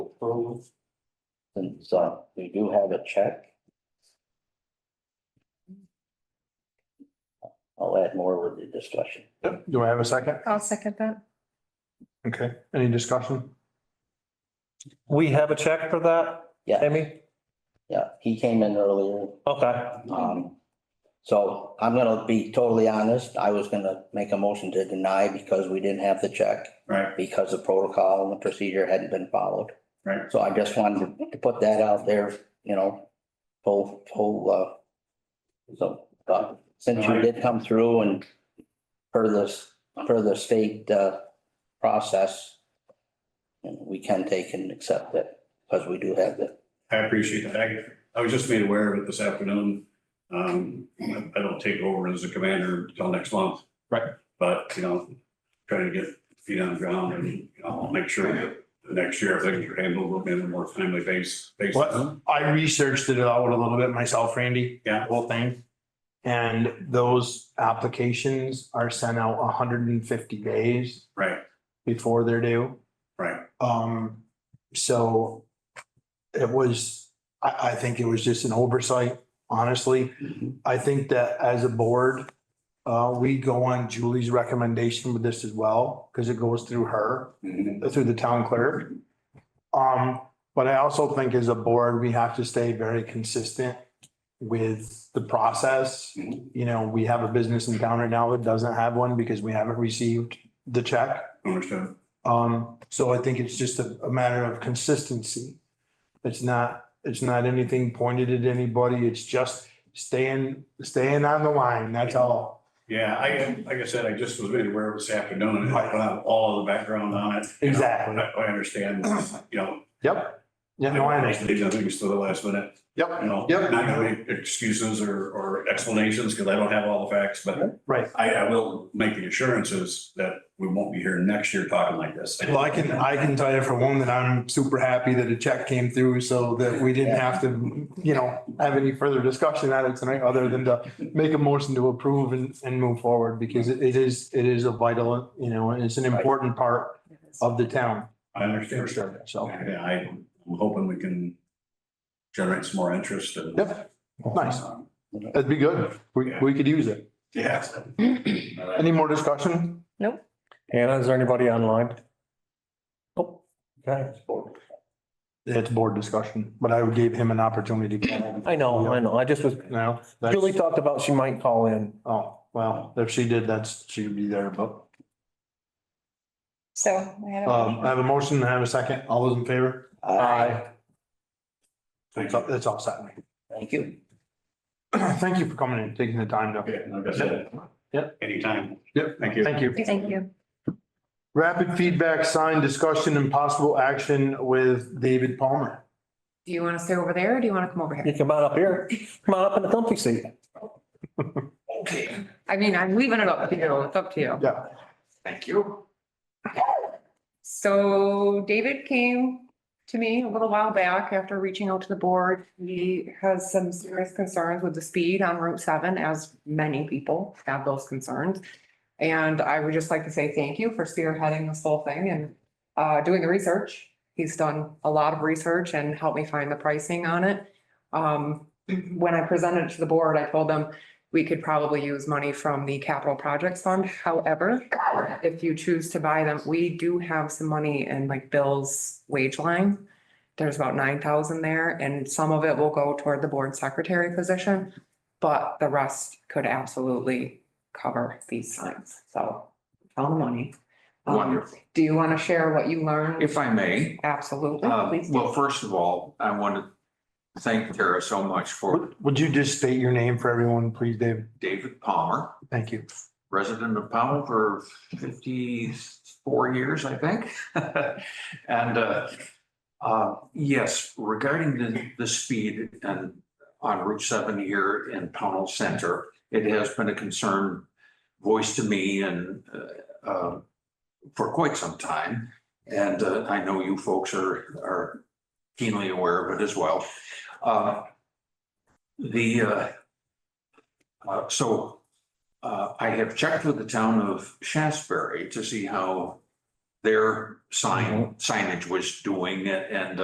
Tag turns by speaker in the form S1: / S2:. S1: approve. Since, uh, we do have a check. I'll add more with the discussion.
S2: Yep. Do I have a second?
S3: I'll second that.
S2: Okay, any discussion?
S4: We have a check for that,
S1: Yeah,
S4: Amy?
S1: yeah, he came in earlier,
S4: Okay,
S5: Mm-hmm.
S1: um, so I'm gonna be totally honest, I was gonna make a motion to deny because we didn't have the check.
S5: Right,
S1: Because the protocol and the procedure hadn't been followed.
S5: right.
S1: So I just wanted to put that out there, you know, whole, whole, uh, so, uh, since you did come through and per this, per the state, uh, process, and we can take and accept it, because we do have the,
S5: I appreciate that. I, I was just made aware of it this afternoon. Um, I don't take over as a commander until next month.
S2: Right.
S5: But, you know, trying to get feet on the ground and, you know, I'll make sure that the next year things are handled in a more timely base, basis.
S2: What, I researched it out a little bit myself, Randy.
S5: Yeah.
S2: Whole thing. And those applications are sent out hundred and fifty days
S5: Right,
S2: before they're due.
S5: right.
S2: Um, so it was, I, I think it was just an oversight, honestly. I think that as a board, uh, we go on Julie's recommendation with this as well, because it goes through her,
S5: Mm-hmm.
S2: through the town clerk. Um, but I also think as a board, we have to stay very consistent with the process.
S5: Mhm.
S2: You know, we have a business in town right now that doesn't have one because we haven't received the check.
S5: Understood.
S2: Um, so I think it's just a, a matter of consistency. It's not, it's not anything pointed at anybody. It's just staying, staying on the line. That's all.
S5: Yeah, I, like I said, I just was made aware of it this afternoon and I don't have all of the background on it.
S2: Exactly.
S5: I, I understand, you know.
S2: Yep. Yeah, no, I understand.
S5: Leave Things to the last minute.
S2: Yep,
S5: you know,
S2: Yep.
S5: not gonna make excuses or, or explanations, because I don't have all the facts, but
S2: right.
S5: I, I will make the assurances that we won't be here next year talking like this.
S2: Well, I can, I can tell you for one that I'm super happy that a check came through so that we didn't have to, you know, have any further discussion on it tonight other than to make a motion to approve and, and move forward because it it is, it is a vital, you know, and it's an important part of the town.
S5: I understand.
S2: So.
S5: Yeah, I- I'm hoping we can generate some more interest and. um,
S2: Yep. Nice. That'd be good. We, we could use it.
S5: Yeah.
S2: Any more discussion?
S4: Hannah, is there anybody online? Nope. Okay,
S2: It's board discussion, but I gave him an opportunity.
S4: I know, I know, I just was,
S2: No, that's,
S4: Julie talked about she might call in.
S2: oh, well, if she did, that's, she'd be there, but,
S3: So I had
S6: Uh,
S2: um,
S3: a
S2: I have a motion, I have a second. All those in favor?
S1: Aye.
S2: It's all, it's all set.
S1: thank you.
S2: Thank you for coming and taking the time to.
S5: Okay, like I said.
S2: Yep.
S5: Anytime.
S2: Yep.
S5: Thank you.
S2: Thank you.
S3: Thank you.
S2: Rapid feedback sign discussion and possible action with David Palmer.
S6: Do you want to stay over there or do you want to come over
S4: You
S6: here?
S4: come on up here, come on up in the comfy seat.
S6: I mean, I'm leaving it up to you. It's up to you.
S2: Yeah.
S6: Thank you. So David came to me a little while back after reaching out to the board. He has some serious concerns with the speed on Route seven, as many people have those concerns. And I would just like to say thank you for spearheading this whole thing and uh, doing the research. He's done a lot of research and helped me find the pricing on it. Um, when I presented it to the board, I told them we could probably use money from the capital projects fund. However, if you choose to buy them, we do have some money in like Bill's wage line. There's about nine thousand there and some of it will go toward the board secretary position. But the rest could absolutely cover these signs. So tell the money. Um,
S7: Wonderful.
S6: Do you want to share what you learned?
S7: If I may,
S6: Absolutely.
S7: uh,
S6: Please do.
S7: well, first of all, I want to thank Tara so much for
S2: Would, would you just state your name for everyone, please, David?
S7: David Palmer,
S2: Thank you.
S7: resident of Powell for fifty-four years, I think. And, uh, uh, yes, regarding the, the speed and on Route seven here in Pownell Center, it has been a concern voiced to me and, uh, uh, for quite some time. And uh, I know you folks are, are keenly aware of it as well. Uh, The, uh, uh, so uh, I have checked with the town of Shasberry to see how their sign signage was doing and